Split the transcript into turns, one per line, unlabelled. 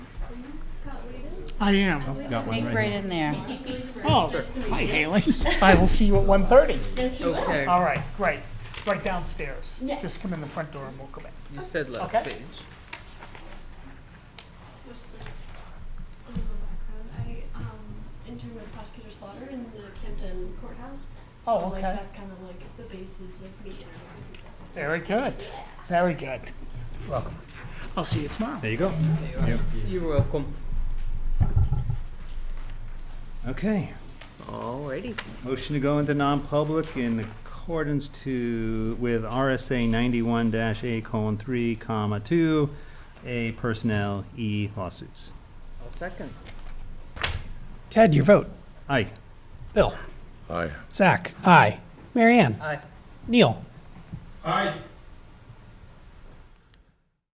I am.
Got one
Sneak
right
right
here.
in there.
Oh, hi Haley. I will see you at 1.30.
Okay,
All right, great. Right downstairs.
Yeah.
Just come in the front door and we'll come in.
you said last
Okay.
page.
I'm a background. I um, interned with Prosecutor Slaughter in the Camden courthouse. So
Oh,
like
okay.
that's kind of like the basis of me interviewing people.
Very good. Very good. Welcome. I'll see you tomorrow.
There you go. Yep.
You're welcome.
Okay.
Alrighty.
Motion to go into non-public in accordance to, with RSA ninety-one dash A colon three comma two, A personnel, E lawsuits.
I'll second.
Ted, your vote.
Aye.
Bill.
Aye.
Zach. Aye. Marianne.
Aye.
Neil. Aye.